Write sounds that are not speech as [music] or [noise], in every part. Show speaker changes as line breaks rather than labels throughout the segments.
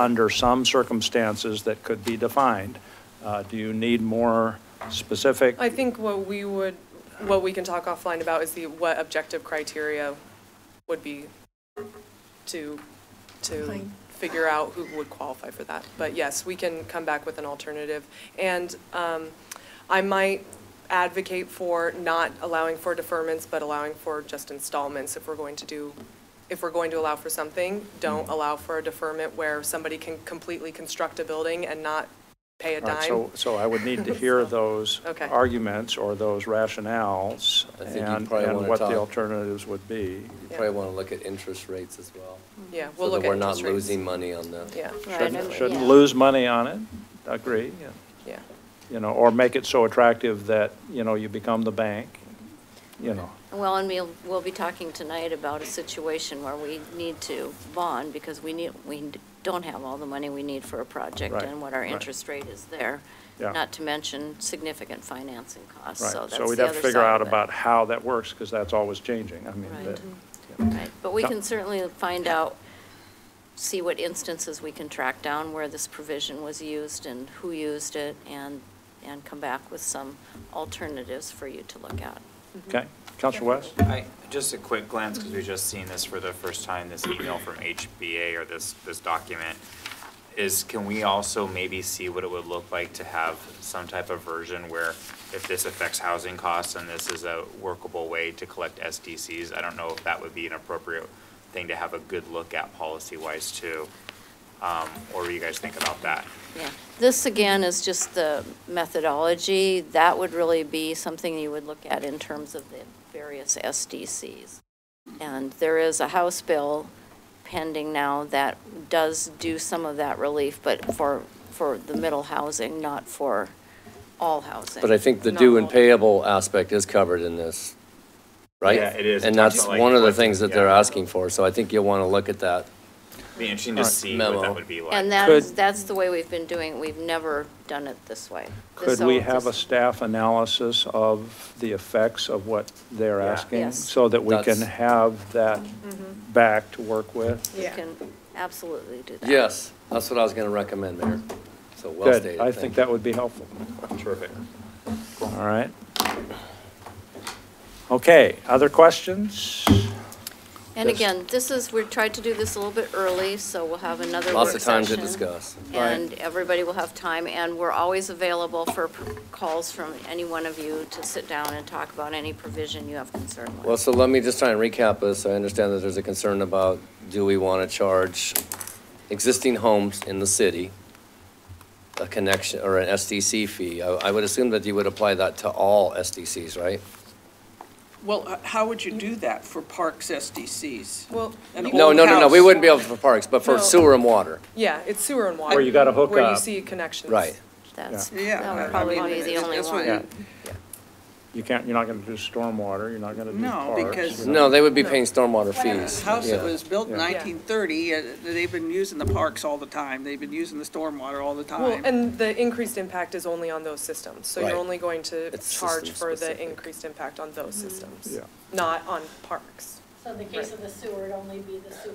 under some circumstances that could be defined. Uh, Do you need more specific?
I think what we would, what we can talk offline about is the, what objective criteria would be to, to
Fine.
figure out who would qualify for that. But yes, we can come back with an alternative. And um, I might advocate for not allowing for deferments, but allowing for just installments if we're going to do, if we're going to allow for something, don't
Mm-hmm.
allow for a deferment where somebody can completely construct a building and not pay a
All right,
dime.
So, so I would
[laughs]
need to hear those
Okay.
arguments or those rationales
I think you'd
and,
probably
and
wanna
what the
talk-
alternatives would be.
You
Yeah.
probably want to look at interest rates as well.
Yeah, we'll
So
look
that
at
we're not
interest rates.
losing money on the.
Yeah,
Right,
Shouldn't-
and-
Shouldn't
yeah.
lose money on it, agree, yeah.
yeah.
you know, or make it so attractive that, you know, you become the bank, you know.
Well, and we'll, we'll be talking tonight about a situation where we need to bond because we need, we don't have all the money we need for a project
Right,
and what our
right.
interest rate is there.
Yeah.
Not to mention significant financing costs, so
Right,
that's
so we'd
the
have to
other
figure
side
out
of it.
about how that works, because that's always changing, I mean.
Right.
that-
Right, but we
Yeah.
can certainly find out, see what instances we can track down where this provision was used and who used it and, and come back with some alternatives for you to look at.
Okay, Counselor West?
I, just a quick glance, because we've just seen this for the first time, this email from HBA or this, this document, is can we also maybe see what it would look like to have some type of version where if this affects housing costs and this is a workable way to collect SDCs? I don't know if that would be an appropriate thing to have a good look at policy-wise too. Um, Or what do you guys think about that?
Yeah, this again is just the methodology. That would really be something you would look at in terms of the various SDCs. And there is a House bill pending now that does do some of that relief, but for, for the middle housing, not for all housing.
But I think the
Not
due and
all.
payable aspect is covered in this, right?
Yeah, it is.
And that's
It's like-
one of the things that they're
Yeah.
asking for, so I think you'll want to look at that.
Be interesting to see what
Memo.
that would be like.
And that
Could-
is, that's the way we've been doing it. We've never done it this way.
Could
So
we have a
this-
staff analysis of the effects of what they're
Yeah.
asking?
Yes. Mm-hmm.
So that we can
That's-
have that back to work with?
We can absolutely do that.
Yes, that's what I was going to recommend, Mayor. So well
Good,
stated.
I think that would be helpful.
Terrific.
All right. Okay, other questions?
And
Yes.
again, this is, we tried to do this a little bit early, so we'll have another work
Lots of time to
session.
discuss.
And everybody will have time, and we're always available for p- calls from any one of you to sit down and talk about any provision you have concern
Well,
with.
so let me just try and recap this. I understand that there's a concern about, do we want to charge existing homes in the city a connection, or an SDC fee? I I would assume that you would apply that to all SDCs, right?
Well, uh, how would you do that for parks SDCs?
Well,
An
you-
No,
Old
no, no, no, we
house.
wouldn't be able for parks, but for
No.
sewer and water,
yeah, it's sewer and water.
Where you gotta hook
Where you
up.
see connections.
right?
That's,
Yeah,
that
I-
would
I
probably
mean,
be the
it's-
only
it's what
one.
Yeah. You can't, you're not going to do stormwater, you're not going to do
No,
parks.
because-
you're not-
No, they would be paying stormwater fees.
The house that
yeah.
was built in
Yeah. Yeah.
1930, uh, they've been using the parks all the time, they've been using the stormwater all the
Well,
time.
and the increased impact is only on those systems, so
Right.
you're only going to
It's Mm-hmm.
charge for the
system-specific.
increased impact on those systems,
Yeah.
not on parks.
So in the case of the sewer, it'd only be the sewer.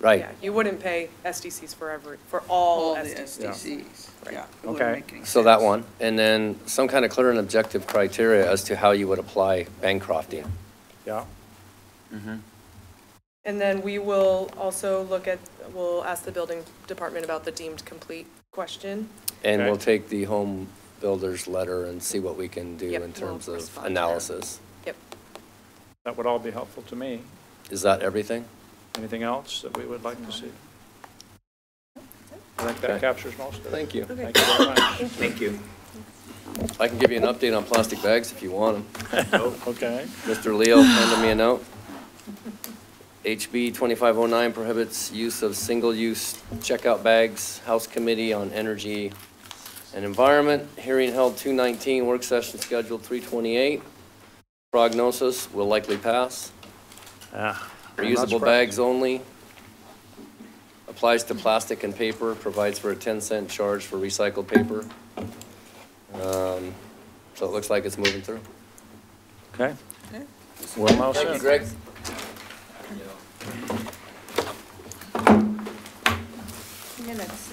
Right.
Yeah, you wouldn't pay SDCs for every, for all
All the
SDCs.
SDCs,
Right.
yeah. it
Okay.
wouldn't make any
So that
sense.
one, and then some kind of clear and objective criteria as to how you would apply Bancrofting.
Yeah,
And then we will also look at, we'll ask the building department about the deemed complete question.
And we'll
Okay.
take the home builder's letter and see what we can do
Yep,
in terms
we'll
of
respond to that.
analysis.
Yep.
that would all be helpful to me.
Is that everything?
Anything else that we would like to see? I think that
Okay.
captures most of it.
Thank you.
Thank you very much.
Thank you.
I can give you an update on plastic bags if you want them.
[laughs]
Okay,
Mr. Leo, handed me a note. HB 2509 prohibits use of single-use checkout bags. House Committee on Energy and Environment, hearing held 219, work session scheduled 328. Prognosis will likely pass. Reusable bags only. Applies to plastic and paper, provides for a 10 cent charge for recycled paper. Um, So it looks like it's moving through.
okay. Well, now
Thank you,
said.
Greg.
Yeah.
minutes